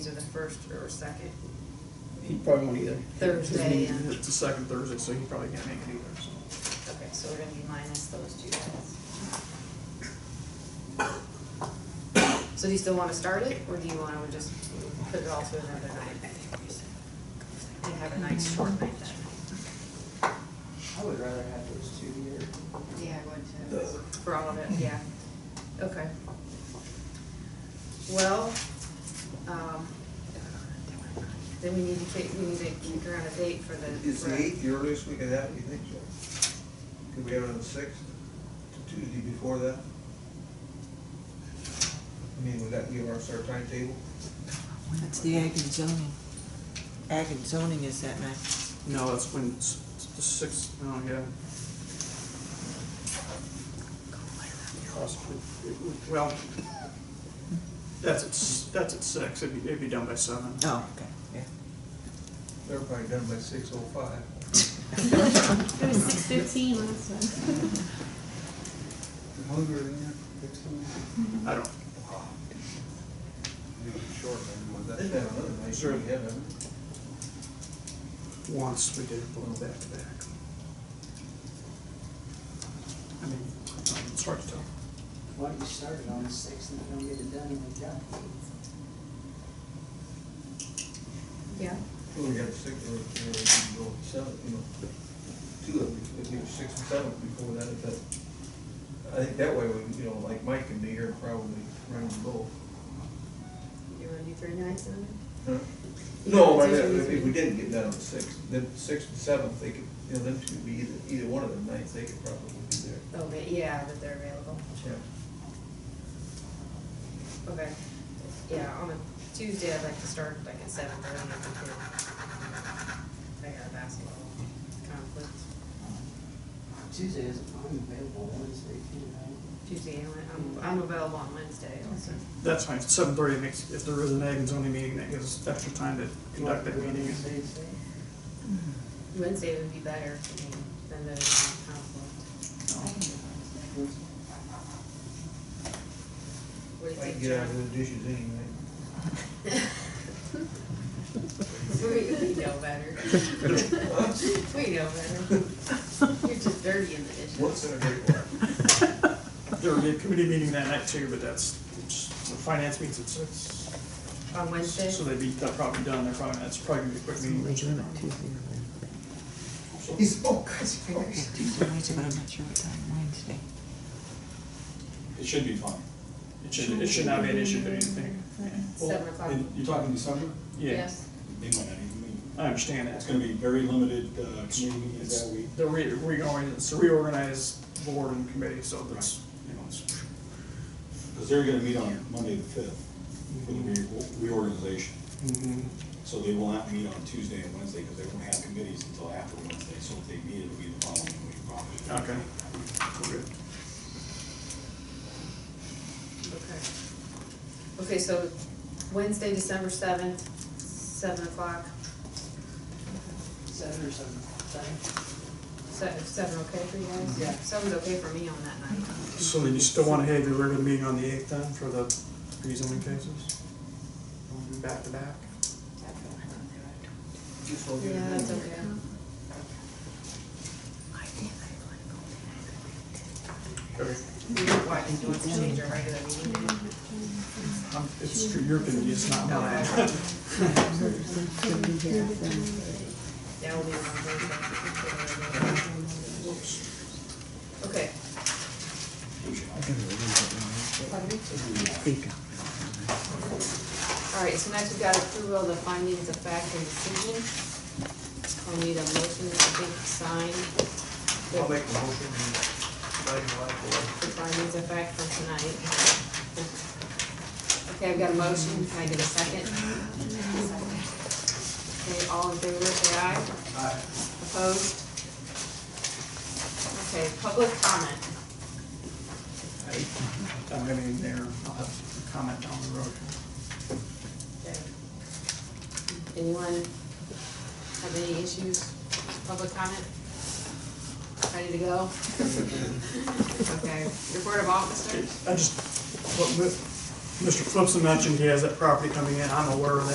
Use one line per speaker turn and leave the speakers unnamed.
either the first or second.
He probably won't either.
Thursday,
His meeting-
yeah.
It's the second Thursday, so he probably can't make it either, so.
Okay, so we're gonna be minus those two guys. So do you still wanna start it, or do you wanna just put it all to another night? And have a nice short night that night?
I would rather have those two here.
Yeah, I would too. For all of it, yeah. Okay. Well, um, then we need to kick, we need to kick around a date for the.
Is
for-
the eighth the earliest we could have, you think so? Could we have it on the sixth, Tuesday before that? I mean, would that give us our timetable?
That's the ag and zoning. Ag and zoning is that night.
No, that's when, it's it's the sixth, oh, yeah. Possibly, it would- well, that's at, s- that's at six, it'd be, it'd be done by seven.
Oh, okay, yeah.
They're probably done by six oh five.
It was six fifteen last time.
Hungry,
I don't,
That's been another nice
Sure.
we haven't.
once we did it blow back to back. I mean, it's hard to tell.
Why you started on the sixth and don't get it done in the job?
Yeah.
Well, we got six, or, or we can go seven, you know, two of them, if there's six and seven before that, if that. I think that way, we, you know, like Mike can be here probably around the goal.
You wanna do three nights in a minute?
No, but if if we didn't get down to six, then six and seventh, they could, you know, them two would be either, either one of them nights, they could probably be there.
Oh, but yeah, that they're available. Okay. Yeah, on a Tuesday, I'd like to start like at seven thirty if we could. I got a basketball conflict
Tuesday is, I'm available Wednesday, too,
Tuesday, and I'm, I'm available on Wednesday also.
That's fine, seven thirty makes, if there is an ag and zoning meeting, that gives us extra time to
right?
conduct that meeting.
Wednesday, say?
Wednesday would be better for me than the conflict.
Wednesday.
What do
I
you
can
think,
get out
John?
of those dishes anyway.
We, we know better. We know better. You're just dirty in the dishes.
What's in a great one?
There would be a committee meeting that night too, but that's, it's- the finance meets at six.
On Wednesday?
So they'd be, that probably done, they're probably, that's probably gonna be a quick meeting.
Wait a minute, Tuesday or Wednesday.
He's all kinds of
Yeah,
fingers.
Tuesday, Wednesday, but I'm not sure what time Wednesday.
It should be fine.
It should, it should not be an issue, but anything.
Seven o'clock.
And You're talking December?
Yeah,
They might not even meet.
I understand
It's
that.
gonna be very limited, uh, community meetings that week.
The re, reorganize, it's a reorganized board and committee, so that's, you know, it's,
Because they're gonna meet on Monday the fifth for the re- reorganization. So they will not meet on Tuesday and Wednesday because they won't have committees until after Wednesday. So if they meet, it'll be the following week probably.
okay. We're good.
Okay. Okay, so Wednesday, December seventh, seven o'clock,
Seven or seven, seven?
seven, seven okay for you guys?
Yeah.
Seven's okay for me on that night.
So then you still wanna have your regular meeting on the eighth then for the rezoning cases? Wanna do Back to back?
Just all get it
Yeah, that's
done.
okay.
Okay.
Why, did you want to change your regular meeting? date?
Um, It's your committee, it's not
Oh,
mine.
Yeah, we'll be on Thursday. Okay, all right, so next we've got approval of the findings of fact and decision. I'll need a motion, I think, signed.
I'll make the motion, and sign the life
the findings of fact for tonight. Okay, I've got a motion, can I get a second? Okay, all in favor, say aye.
Aye.
Opposed? Okay, public comment.
I don't have anything there, I'll have a comment down the road.
Anyone have any issues, public comment? Ready to go? Okay, report of officers?
I just, what Mi- Mr. Flipson mentioned, he has that property coming in, I'm aware of that.